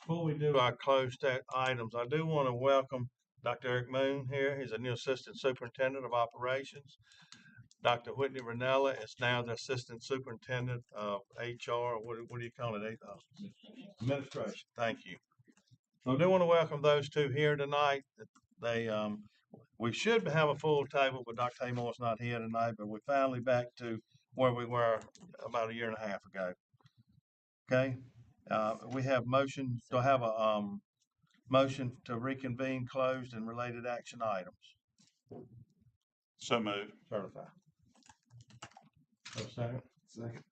Before we do our closed stat items, I do want to welcome Dr. Eric Moon here. He's a new Assistant Superintendent of Operations. Dr. Whitney Renella is now the Assistant Superintendent of HR, what, do- what do you call it, eh, uh, administration, thank you. I do want to welcome those two here tonight. They, um, we should have a full table, but Dr. Haymore's not here tonight, but we're finally back to where we were about a year and a half ago. Okay, uh, we have motion, do I have a, um, motion to reconvene closed and related action items? So moved. Certified. Have a second? Second.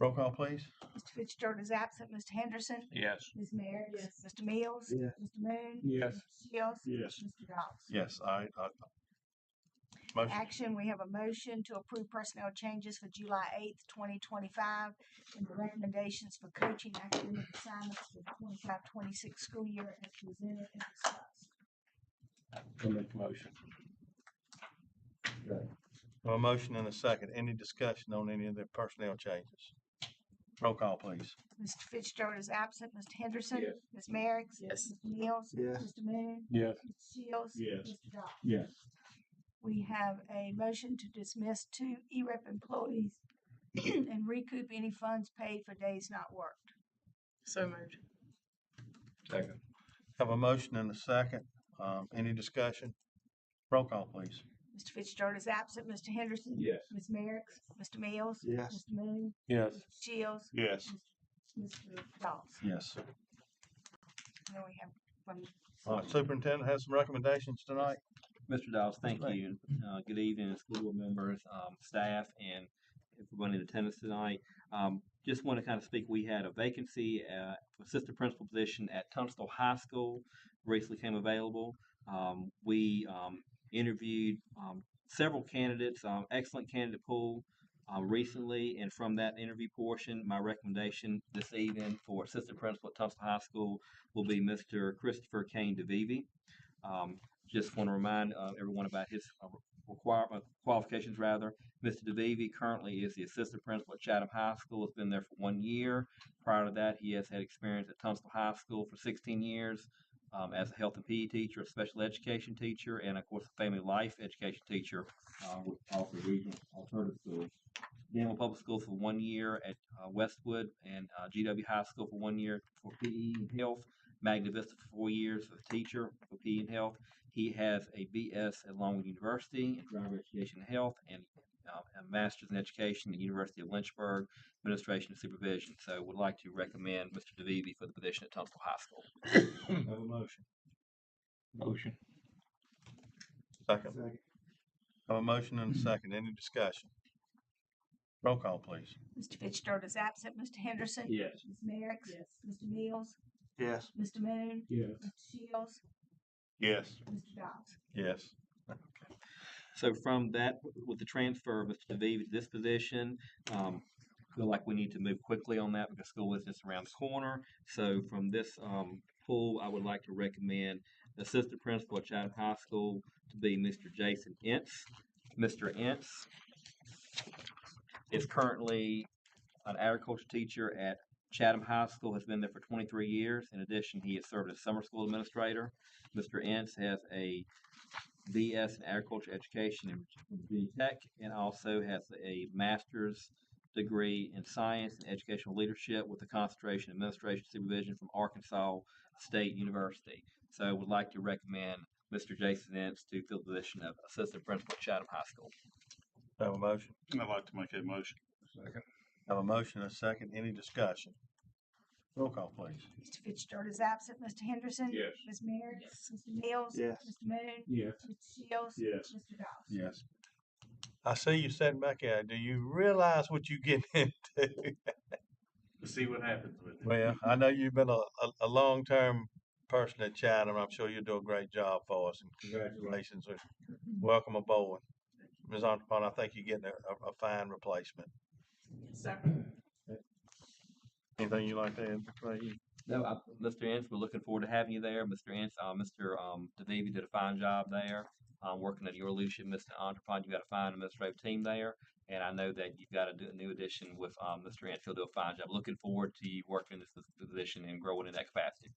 Roll call, please. Mr. Fitzgerald is absent. Mr. Henderson, Yes. Ms. Merrick. Mr. Mills. Yes. Mr. Moon. Yes. Mr. Shields. Yes. Mr. Dawes. Yes, I, I. Motion, Action, we have a motion to approve personnel changes for July eighth, twenty twenty-five, and the recommendations for coaching academic assignments for the 25-26 school year as presented and discussed. I'll make a motion. a motion and a second. Any discussion on any of the personnel changes? Roll call, please. Mr. Fitzgerald is absent. Mr. Henderson. Yes. Ms. Merrick. Yes. Mr. Mills. Yes. Mr. Moon. Yes. Mr. Shields. Yes. Mr. Dawes. Yes. We have a motion to dismiss two EREP employees and recoup any funds paid for days not worked. So moved. Second. Have a motion and a second. Um, any discussion? Roll call, please. Mr. Fitzgerald is absent. Mr. Henderson? Yes. Ms. Merrick? Mr. Mills? Yes. Mr. Moon? Yes. Mr. Shields? Yes. Mr. Dawes? Yes. Then we have from All right, superintendent has some recommendations tonight. Mr. Dawes, thank Right. you. Uh, good evening, school board members, um, staff, and everyone in attendance tonight. Um, just want to kind of speak, we had a vacancy, uh, assistant principal position at Tunstall High School recently came available. Um, we, um, interviewed, um, several candidates, um, excellent candidate pool, um, recently, and from that interview portion, my recommendation this evening for assistant principal at Tunstall High School will be Mr. Christopher Kane DeVivi. Um, just want to remind uh, everyone about his uh, requirement qualifications rather. Mr. DeVivi currently is the assistant principal at Chatham High School. Has been there for one year. Prior to that, he has had experience at Tunstall High School for 16 years um, as a health and PE teacher, a special education teacher, and of course a family life education teacher uh, with also regional alternative schools. Danville Public Schools for one year at uh, Westwood and uh, GW High School for one year for PE and health. Magna Vista for four years as a teacher for PE and health. He has a BS at Longwood University in driver education and health and uh, a master's in education at the University of Lynchburg, administration and supervision. So would like to recommend Mr. DeVivi for the position at Tunstall High School. Have a motion. Motion. Second. Second. Have a motion and a second. Any discussion? Roll call, please. Mr. Fitzgerald is absent. Mr. Henderson? Yes. Ms. Merrick? Yes. Mr. Mills? Yes. Mr. Moon? Yes. Mr. Shields? Yes. Mr. Dawes? Yes. So from that, with the transfer of Mr. DeVivi to this position, um, feel like we need to move quickly on that because school is just around the corner. So from this, um, pool, I would like to recommend Assistant Principal at Chatham High School to be Mr. Jason Ince. Mr. Ince is currently an agriculture teacher at Chatham High School, has been there for twenty-three years. In addition, he has served as summer school administrator. Mr. Ince has a BS in agriculture education and Virginia Tech, and also has a master's degree in science and educational leadership with a concentration in administration supervision from Arkansas State University. So I would like to recommend Mr. Jason Ince to fill the position of assistant principal at Chatham High School. Have a motion. I'd like to make a motion. Have a motion and a second. Any discussion? Roll call, please. Mr. Fitzgerald is absent. Mr. Henderson? Yes. Ms. Merrick? Yes. Mr. Mills? Yes. Mr. Moon? Yes. Mr. Shields? Yes. Mr. Dawes? Yes. I see you sitting back there. Do you realize what you get into? We'll see what happens with it. Well, I know you've been a, a, a long-term person at Chatham. I'm sure you do a great job for us and congratulations. and Welcome aboard. Ms. Entrepreneur, I think you're getting a, a, a fine replacement. Anything you like to add? before you- No, I, Mr. Ince, we're looking forward to having you there. Mr. Ince, uh, Mr. Um, DeVivi did a fine job there, um, working under your leadership, Mr. Entrepreneur. You've got a fine administrative team there, and I know that you've got a d- new uh, addition with um, Mr. Ince. He'll do a fine job. Looking forward to you working in this this position and growing in that capacity.